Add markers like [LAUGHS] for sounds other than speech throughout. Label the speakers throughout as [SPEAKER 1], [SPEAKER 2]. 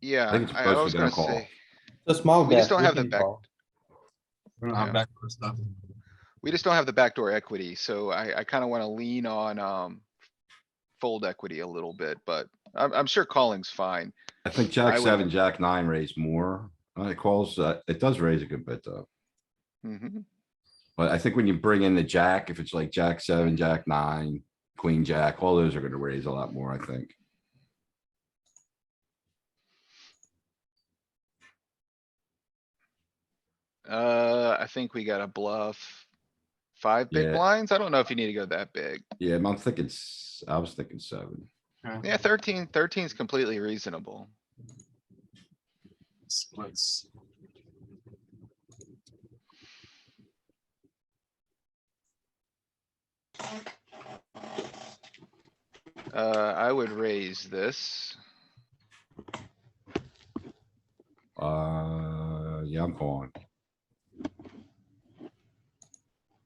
[SPEAKER 1] Yeah,
[SPEAKER 2] think it's
[SPEAKER 1] I I
[SPEAKER 2] supposed to
[SPEAKER 1] was
[SPEAKER 2] be gonna
[SPEAKER 1] gonna
[SPEAKER 2] call.
[SPEAKER 1] say,
[SPEAKER 3] The small bet.
[SPEAKER 1] We just don't
[SPEAKER 3] we
[SPEAKER 1] have the
[SPEAKER 3] can
[SPEAKER 1] back-
[SPEAKER 3] call.
[SPEAKER 4] We don't
[SPEAKER 1] Yeah.
[SPEAKER 4] have backdoor stuff.
[SPEAKER 1] we just don't have the backdoor equity, so I, I kinda wanna lean on, um. Fold equity a little bit, but I'm, I'm sure calling's fine.
[SPEAKER 2] I think
[SPEAKER 1] I
[SPEAKER 2] jack
[SPEAKER 1] would-
[SPEAKER 2] seven, jack nine raise more. Uh, It calls, uh, it does raise a good bit though.
[SPEAKER 1] Mhm.
[SPEAKER 2] But I think when you bring in the jack, if it's like jack seven, jack nine, queen, jack, all those are gonna raise a lot more, I think.
[SPEAKER 1] Uh, I think we got a bluff. Five big
[SPEAKER 2] Yeah.
[SPEAKER 1] blinds? I don't know if you need to go that big.
[SPEAKER 2] Yeah, I'm thinking, s- I was thinking seven.
[SPEAKER 1] Yeah, thirteen, thirteen's completely reasonable.
[SPEAKER 4] Splits.
[SPEAKER 1] Uh, I would raise this.
[SPEAKER 2] Uh, yeah, I'm calling.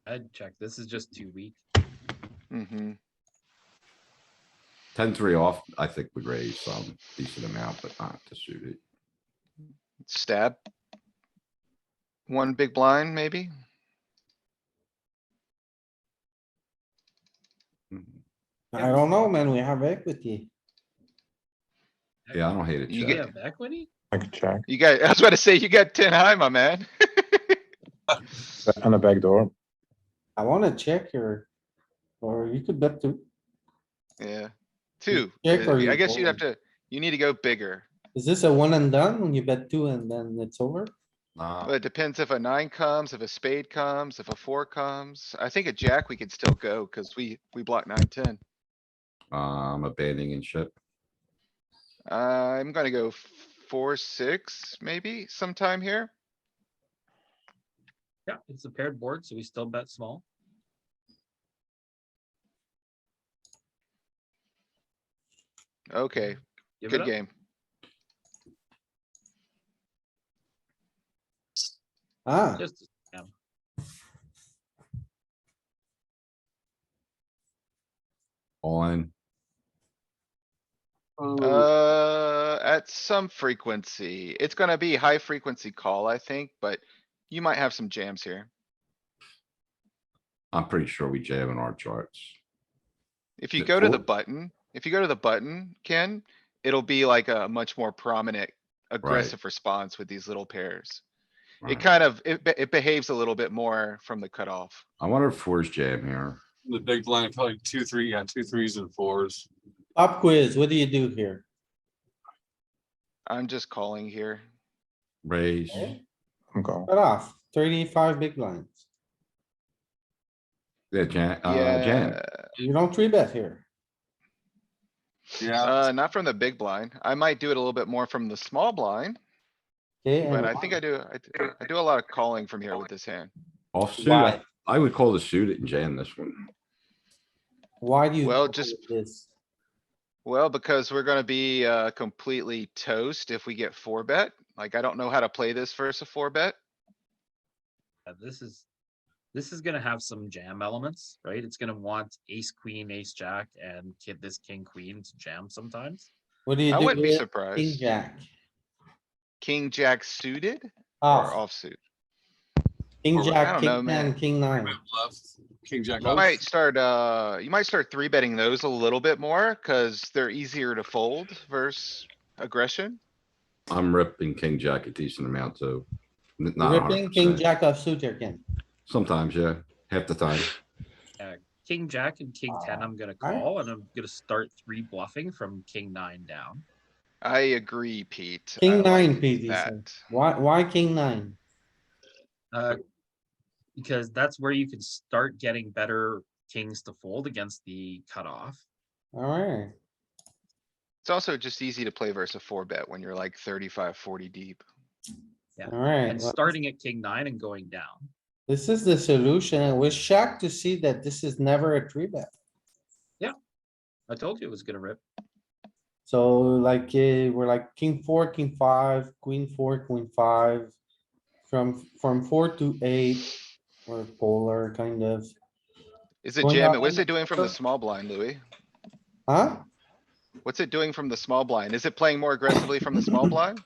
[SPEAKER 5] I'd check. This is just too weak.
[SPEAKER 1] hmm
[SPEAKER 2] Ten three off, I think would raise some decent amount, but not to suit it.
[SPEAKER 1] stab. One big blind, maybe?
[SPEAKER 2] Mhm.
[SPEAKER 3] I don't know, man, we have equity.
[SPEAKER 2] Yeah, I don't hate it.
[SPEAKER 1] You
[SPEAKER 5] Yeah,
[SPEAKER 2] Jack.
[SPEAKER 1] get-
[SPEAKER 5] equity?
[SPEAKER 6] I could check
[SPEAKER 1] You got, [LAUGHS] I was about to say, you got ten high, my man. [LAUGHS]
[SPEAKER 6] and a back door.
[SPEAKER 3] I wanna check here. Or you could bet two.
[SPEAKER 1] Yeah, two.
[SPEAKER 3] check
[SPEAKER 1] Uh,
[SPEAKER 3] or
[SPEAKER 1] I
[SPEAKER 3] you
[SPEAKER 1] guess you'd have
[SPEAKER 3] fold?
[SPEAKER 1] to, you need to go bigger,
[SPEAKER 3] Is this a one and done when you bet two and then it's over?
[SPEAKER 5] Oh.
[SPEAKER 2] Nah,
[SPEAKER 1] but it depends if a nine comes, if a spade comes, if a four comes. I think a jack we could still go, cuz we, we block nine, ten.
[SPEAKER 2] I'm abandoning ship.
[SPEAKER 1] I'm gonna go four, six, maybe sometime here.
[SPEAKER 5] Yeah, it's a paired board, so we still bet small.
[SPEAKER 1] Okay,
[SPEAKER 5] Give it
[SPEAKER 1] good
[SPEAKER 5] up.
[SPEAKER 1] game.
[SPEAKER 3] Ah,
[SPEAKER 5] Just,
[SPEAKER 2] All in.
[SPEAKER 1] Uh, at some frequency. It's gonna be high frequency call, I think, but you might have some jams here.
[SPEAKER 2] I'm pretty sure we jam in our charts.
[SPEAKER 1] If you
[SPEAKER 2] Th-
[SPEAKER 1] go to the
[SPEAKER 2] fold.
[SPEAKER 1] button, if you go to the button, Ken, it'll be like a much more prominent aggressive response with these little pairs. It
[SPEAKER 2] Right.
[SPEAKER 1] kind of, it, be- it behaves a little bit more from the cutoff.
[SPEAKER 2] I wonder if fours jam here.
[SPEAKER 4] The big blind, probably two, three, yeah, two threes and fours.
[SPEAKER 3] pop quiz, what do you do here?
[SPEAKER 1] I'm just calling here.
[SPEAKER 2] Raise.
[SPEAKER 6] I'm going.
[SPEAKER 3] Cut off, thirty-five big blinds.
[SPEAKER 2] Yeah, jam, uh, jam.
[SPEAKER 1] Yeah,
[SPEAKER 3] You don't three bet here.
[SPEAKER 4] Yeah,
[SPEAKER 1] uh, not from the big blind. I might do it a little bit more from the small blind,
[SPEAKER 3] Okay,
[SPEAKER 1] but
[SPEAKER 3] and
[SPEAKER 1] I think I do, I, do- I do a lot of calling from here with this hand.
[SPEAKER 2] Offsuit,
[SPEAKER 3] Why?
[SPEAKER 2] I- I would call the suit it and jam this one.
[SPEAKER 3] why do you?
[SPEAKER 1] Well,
[SPEAKER 3] call
[SPEAKER 1] just-
[SPEAKER 3] it this?
[SPEAKER 1] Well, because we're gonna be, uh, completely toast if we get four bet. Like, I don't know how to play this versus a four bet.
[SPEAKER 5] yeah, this is, this is gonna have some jam elements, right? It's gonna want ace, queen, ace, jack, and kid, this king, queen to jam sometimes.
[SPEAKER 3] What do you
[SPEAKER 1] I
[SPEAKER 3] do
[SPEAKER 1] wouldn't be
[SPEAKER 3] with king
[SPEAKER 1] surprised.
[SPEAKER 3] jack?
[SPEAKER 1] King, jack suited or
[SPEAKER 3] Off,
[SPEAKER 1] offsuit.
[SPEAKER 3] king
[SPEAKER 4] I
[SPEAKER 3] jack,
[SPEAKER 1] don't know,
[SPEAKER 3] king
[SPEAKER 1] man.
[SPEAKER 3] ten, king nine.
[SPEAKER 4] bluff, king, jack.
[SPEAKER 1] You
[SPEAKER 4] off.
[SPEAKER 1] might start, uh, you might start three betting those a little bit more, cause they're easier to fold versus aggression.
[SPEAKER 2] I'm ripping king jack a decent amount too. N- Not a hundred
[SPEAKER 3] Ripping king
[SPEAKER 2] percent.
[SPEAKER 3] jack offsuit here, Ken.
[SPEAKER 2] Sometimes, yeah, half the time.
[SPEAKER 5] King, jack, and king ten, I'm gonna
[SPEAKER 3] alright.
[SPEAKER 5] call, and I'm gonna start three bluffing from king nine down.
[SPEAKER 1] I agree, Pete. I
[SPEAKER 3] King nine,
[SPEAKER 1] like
[SPEAKER 3] Pete, he said.
[SPEAKER 1] That,
[SPEAKER 3] Why, why king nine?
[SPEAKER 5] Uh, because that's where you can start getting better kings to fold against the cutoff.
[SPEAKER 3] Alright,
[SPEAKER 1] it's also just easy to play versus a four bet when you're like 35, 40 deep.
[SPEAKER 3] alright.
[SPEAKER 5] And starting at king nine and going down.
[SPEAKER 3] This is the solution. I was shocked to see that this is never a three bet.
[SPEAKER 5] I told you it was gonna rip.
[SPEAKER 3] So like, eh, we're like king four, king five, queen four, queen five. From, from four to eight, or polar kind of,
[SPEAKER 1] Is it
[SPEAKER 3] Going
[SPEAKER 1] jam?
[SPEAKER 3] down
[SPEAKER 1] What's
[SPEAKER 3] under
[SPEAKER 1] it doing from the
[SPEAKER 3] pressure.
[SPEAKER 1] small blind, Louis?
[SPEAKER 3] huh? [CLEARS THROAT]
[SPEAKER 1] What's it doing from the small blind? Is it playing more aggressively from the small blind?